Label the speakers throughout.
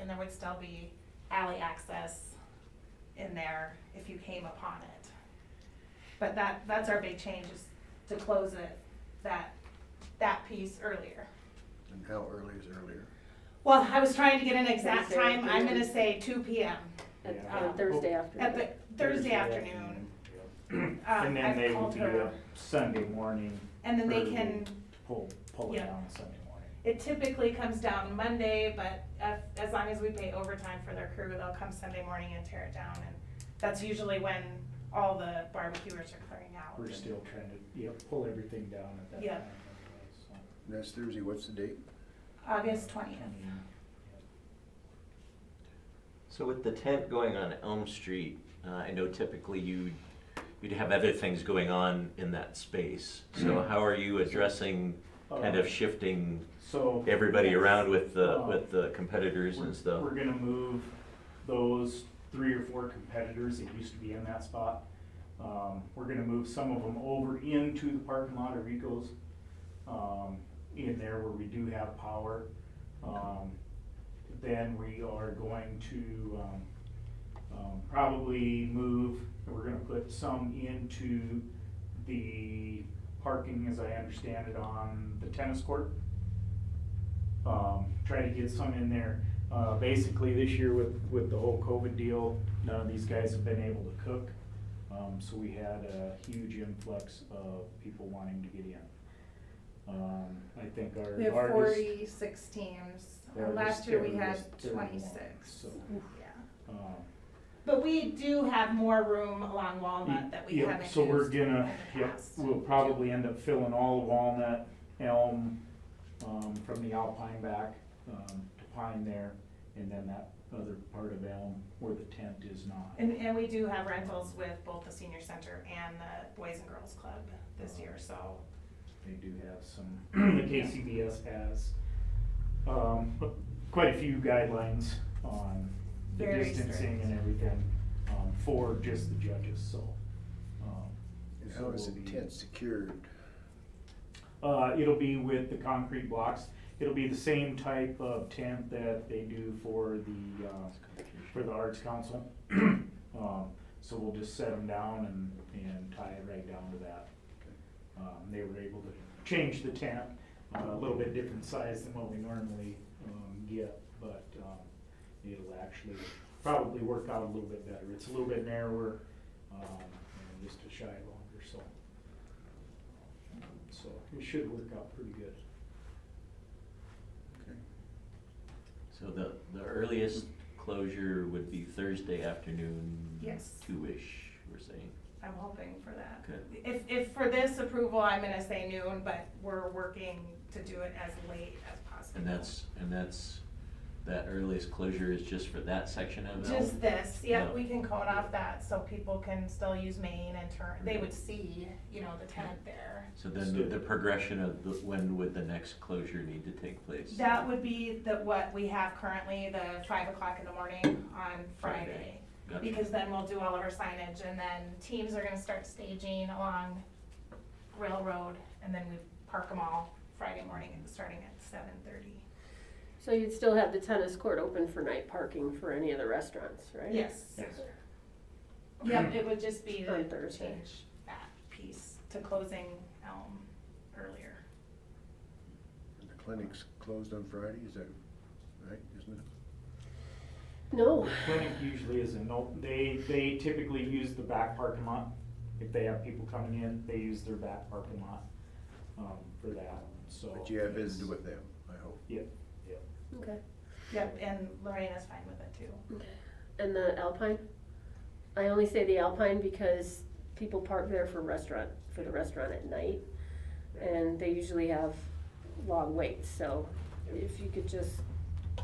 Speaker 1: and there would still be alley access in there if you came upon it. But that, that's our big change is to close it, that, that piece earlier.
Speaker 2: And how early is earlier?
Speaker 1: Well, I was trying to get an exact
Speaker 3: Thursday
Speaker 1: time, I'm gonna
Speaker 3: afternoon.
Speaker 1: say two P M,
Speaker 3: At-
Speaker 4: Yeah.
Speaker 3: on Thursday
Speaker 1: at
Speaker 3: afternoon.
Speaker 1: the Thursday afternoon.
Speaker 4: afternoon, yeah.
Speaker 1: Um,
Speaker 4: And
Speaker 1: I've
Speaker 4: then they
Speaker 1: called
Speaker 4: would do
Speaker 1: her.
Speaker 4: a Sunday morning,
Speaker 1: And then they
Speaker 4: Early.
Speaker 1: can,
Speaker 4: pull, pull it
Speaker 1: Yeah.
Speaker 4: down Sunday morning.
Speaker 1: it typically comes down Monday, but if, as long as we pay overtime for their crew, they'll come Sunday morning and tear it down. And that's usually when all the barbecuers are clearing out.
Speaker 4: We're still trying to, yeah, pull everything down at that time.
Speaker 1: Yeah.
Speaker 4: anyway, so.
Speaker 2: And That's Thursday, what's the date?
Speaker 1: August twentieth.
Speaker 5: So with the tent going on Elm Street, uh, I know typically you, you'd have other things going on in that space. So how are you addressing, kind
Speaker 4: Uh,
Speaker 5: of shifting
Speaker 4: So.
Speaker 5: everybody around with the,
Speaker 4: Uh,
Speaker 5: with the competitors
Speaker 4: We're-
Speaker 5: and stuff?
Speaker 4: We're gonna move those three or four competitors that used to be in that spot. Um, we're gonna move some of them over into the parking lot of Rico's. Um, in there where we do have power. Um, then we are going to, um, um, probably move, we're gonna put some into the parking, as I understand it, on the tennis court um, try to get some in there. Uh, basically, this year with, with the whole COVID deal, none of these guys have been able to cook. Um, so we had a huge influx of people wanting to get in. Um, I think our
Speaker 1: We have
Speaker 4: largest.
Speaker 1: forty-six teams.
Speaker 4: Yeah,
Speaker 1: Uh, Last
Speaker 4: just
Speaker 1: year
Speaker 4: give
Speaker 1: we
Speaker 4: it
Speaker 1: had
Speaker 4: just thirty one,
Speaker 1: twenty-six.
Speaker 4: so.
Speaker 1: Yeah.
Speaker 4: um,
Speaker 1: But we do have more room along Walnut that we
Speaker 4: Yep,
Speaker 1: haven't used.
Speaker 4: um, So we're gonna,
Speaker 1: in the
Speaker 4: yep,
Speaker 1: past.
Speaker 4: we'll probably end up filling all of Walnut, Elm, um, from the Alpine back, um, to Pine there, and then that other part of Elm where the tent is not.
Speaker 1: And, and we do have rentals with both the senior center and the Boys and Girls Club this year, so.
Speaker 4: They do have some, the KCBS has, um, quite a few guidelines on the
Speaker 1: Very
Speaker 4: distancing
Speaker 1: strict.
Speaker 4: and everything, um, for just the judges, so. um,
Speaker 2: And
Speaker 4: so
Speaker 2: how is
Speaker 4: we'll
Speaker 2: the
Speaker 4: be-
Speaker 2: tent secured?
Speaker 4: Uh, it'll be with the concrete blocks. It'll be the same type of tent that they do for the, uh, for the Arts Council. Um, so we'll just set them down and, and tie it right down to that. Um, they were able to change the tent, uh, a little bit different size than what we normally, um, get, but, um, it'll actually probably work out a little bit better. It's a little bit narrower, um, and just a shy longer, so. So it should work out pretty good.
Speaker 2: Okay.
Speaker 5: So the, the earliest closure would be Thursday afternoon?
Speaker 1: Yes.
Speaker 5: Two-ish, we're saying.
Speaker 1: I'm hoping for that.
Speaker 5: Good.
Speaker 1: If, if for this approval, I'm gonna say noon, but we're working to do it as late as possible.
Speaker 5: And that's, and that's, that earliest closure is just for that section of Elm?
Speaker 1: Just this, yeah,
Speaker 5: Yeah.
Speaker 1: we can code off that so people can still use Maine and turn, they would see, you know, the tent there.
Speaker 5: So then the- the progression of the, when would the next closure need to take place?
Speaker 1: That would be the, what we have currently, the five o'clock in the morning on Friday.
Speaker 5: Friday. Gotcha.
Speaker 1: Because then we'll do all of our signage and then teams are gonna start staging along Railroad and then we park them all Friday morning and starting at seven thirty.
Speaker 3: So you'd still have the tennis court open for night parking for any of the restaurants, right?
Speaker 1: Yes.
Speaker 4: Yes. Hmm.
Speaker 1: Yep, it would just be
Speaker 3: On
Speaker 1: the
Speaker 3: Thursday.
Speaker 1: change that piece to closing Elm earlier.
Speaker 2: And The clinic's closed on Friday, is that right, isn't it?
Speaker 3: No,
Speaker 4: The clinic usually isn't, no, they, they typically use the back parking lot. If they have people coming in, they use their back parking lot, um, for that, so.
Speaker 2: But you have
Speaker 4: it's-
Speaker 2: visited with them, I hope.
Speaker 4: Yep, yep.
Speaker 3: okay.
Speaker 1: Yep, and Lorena's fine with it too.
Speaker 3: And the Alpine? I only say the Alpine because people park there for restaurant, for the restaurant at night. And they usually have long waits, so if you could just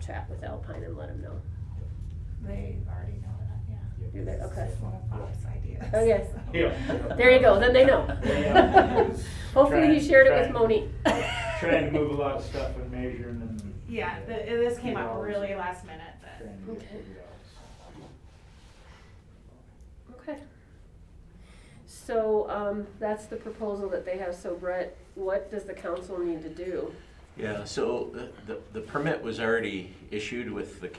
Speaker 3: chat with Alpine and let them know.
Speaker 1: They already know that, yeah.
Speaker 4: yep.
Speaker 3: Do they? Okay.
Speaker 1: It's one of Bob's ideas.
Speaker 3: Okay.
Speaker 1: so.
Speaker 4: Yeah.
Speaker 3: There you go, then they know.
Speaker 4: Yeah.
Speaker 3: Hopefully he shared it
Speaker 4: Trying-
Speaker 3: with Monique.
Speaker 4: Trying to move a lot of stuff and measuring and.
Speaker 1: Yeah, the, this came up really last minute, but.
Speaker 4: Trying to get it
Speaker 3: Okay.
Speaker 4: figured out, so.
Speaker 3: Okay. So, um, that's the proposal that they have, so Brett, what does the council need to do?
Speaker 5: Yeah, so uh, the, the permit was already issued with the